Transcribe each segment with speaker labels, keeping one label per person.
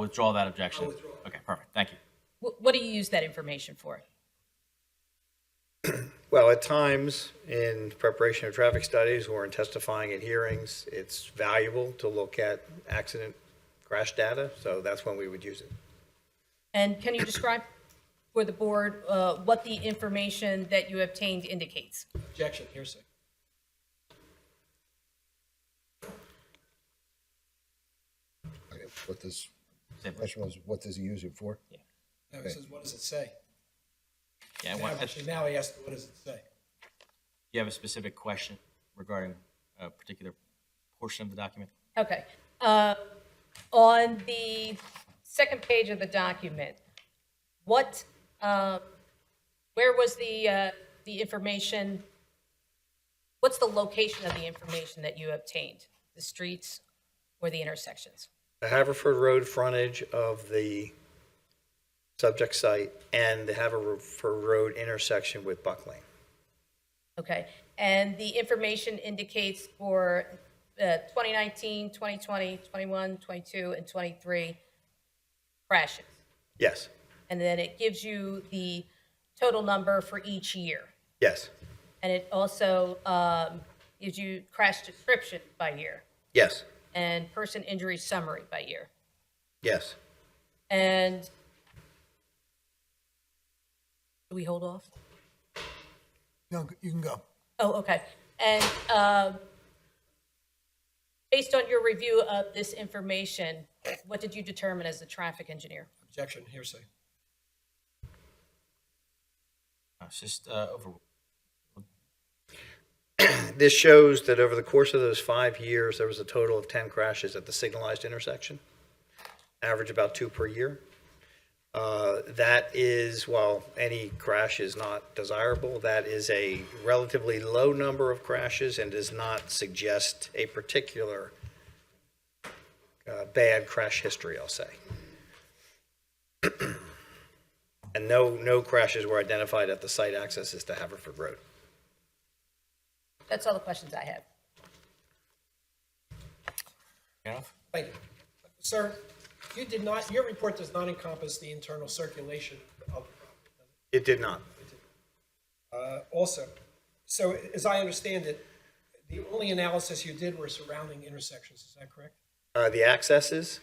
Speaker 1: Withdraw that objection. Okay, perfect. Thank you.
Speaker 2: Wh- What do you use that information for?
Speaker 3: Well, at times, in preparation of traffic studies or in testifying at hearings, it's valuable to look at accident crash data, so that's when we would use it.
Speaker 2: And can you describe for the board uh, what the information that you obtained indicates?
Speaker 4: Objection, hearsay.
Speaker 5: Okay, What does,
Speaker 1: Say, please.
Speaker 5: question was, what does he use it for?
Speaker 4: No, it says, what does it say?
Speaker 1: Yeah,
Speaker 4: Now,
Speaker 1: what-
Speaker 4: actually, now he asked, what does it say?
Speaker 1: you have a specific question regarding a particular portion of the document?
Speaker 2: Okay. Uh, On the second page of the document, what, um, where was the, uh, the information? What's the location of the information that you obtained? The streets or the intersections?
Speaker 3: The Haverford Road frontage of the subject site and the Haverford Road intersection with Buck Lane.
Speaker 2: Okay, and the information indicates for uh, 2019, 2020, 21, 22, and 23 crashes.
Speaker 3: Yes,
Speaker 2: And then it gives you the total number for each year.
Speaker 3: yes,
Speaker 2: And it also um, gives you crash description by year
Speaker 3: yes,
Speaker 2: and person injury summary by year.
Speaker 3: yes.
Speaker 2: And do we hold off?
Speaker 6: No, you can go.
Speaker 2: Oh, okay. And um, based on your review of this information, what did you determine as the traffic engineer?
Speaker 4: Objection, hearsay.
Speaker 1: No, It's just uh, over.
Speaker 3: This shows that over the course of those five years, there was a total of 10 crashes at the signalized intersection, average about two per year. Uh, That is, while any crash is not desirable, that is a relatively low number of crashes and does not suggest a particular uh, bad crash history, I'll say. And no, no crashes were identified at the site accesses to Haverford Road.
Speaker 2: That's all the questions I have.
Speaker 1: Fair enough?
Speaker 4: Thank you. Sir, you did not, your report does not encompass the internal circulation of the property.
Speaker 3: It did not.
Speaker 4: Uh, Also, so as I understand it, the only analysis you did were surrounding intersections, is that correct?
Speaker 3: uh, the accesses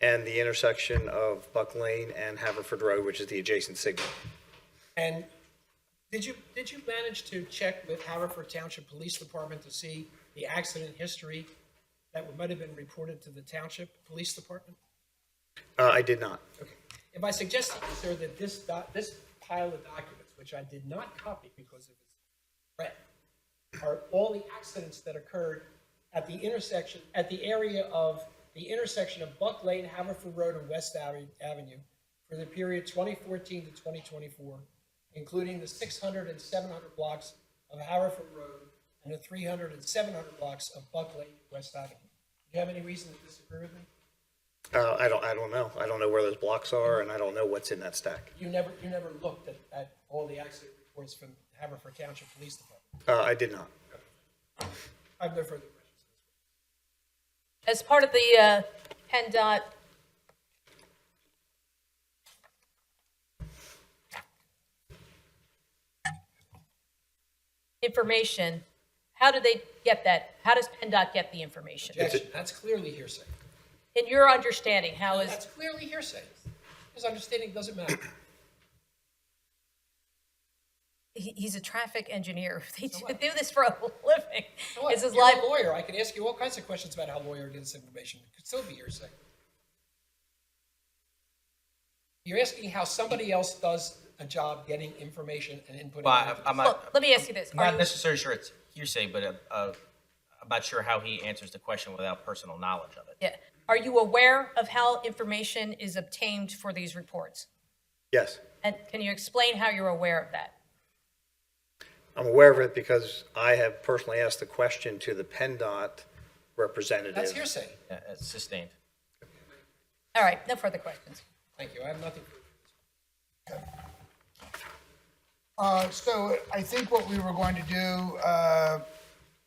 Speaker 3: and the intersection of Buck Lane and Haverford Road, which is the adjacent signal.
Speaker 4: And did you, did you manage to check with Haverford Township Police Department to see the accident history that might have been reported to the Township Police Department?
Speaker 3: Uh, I did not.
Speaker 4: Okay. If I suggest, sir, that this doc, this pile of documents, which I did not copy because of its threat, are all the accidents that occurred at the intersection, at the area of, the intersection of Buck Lane, Haverford Road, and West Ave- Avenue for the period 2014 to 2024, including the 600 and 700 blocks of Haverford Road and the 300 and 700 blocks of Buck Lane, West Avenue. Do you have any reason to disagree with me?
Speaker 3: Uh, I don't, I don't know. I don't know where those blocks are and I don't know what's in that stack.
Speaker 4: You never, you never looked at, at all the accident reports from Haverford Township Police Department?
Speaker 3: Uh, I did not.
Speaker 4: I have no further questions.
Speaker 2: As part of the uh, PennDOT information, how do they get that? How does PennDOT get the information?
Speaker 4: Objection, that's clearly hearsay.
Speaker 2: In your understanding, how is?
Speaker 4: That's clearly hearsay. His understanding doesn't matter.
Speaker 2: he, he's a traffic engineer. They do, do this for a living.
Speaker 4: You know what?
Speaker 2: This is
Speaker 4: You're
Speaker 2: live.
Speaker 4: a lawyer, I can ask you all kinds of questions about how lawyer did this information, it could still be hearsay. You're asking how somebody else does a job getting information and input.
Speaker 7: Well, I- I'm
Speaker 2: Look,
Speaker 7: not,
Speaker 2: let me ask you this.
Speaker 7: I'm
Speaker 2: Are
Speaker 7: not
Speaker 2: you-
Speaker 7: necessarily sure it's hearsay, but uh, uh, I'm not sure how he answers the question without personal knowledge of it.
Speaker 2: yeah. Are you aware of how information is obtained for these reports?
Speaker 3: Yes.
Speaker 2: And can you explain how you're aware of that?
Speaker 3: I'm aware of it because I have personally asked the question to the PennDOT
Speaker 4: That's
Speaker 3: representative.
Speaker 4: hearsay.
Speaker 7: Uh, it's Sustained.
Speaker 2: All right, no further questions.
Speaker 4: Thank you, I have nothing.
Speaker 6: Uh, So I think what we were going to do, uh,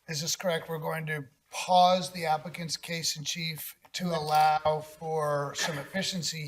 Speaker 6: is this correct? We're going to pause the applicant's case in chief to allow for some efficiency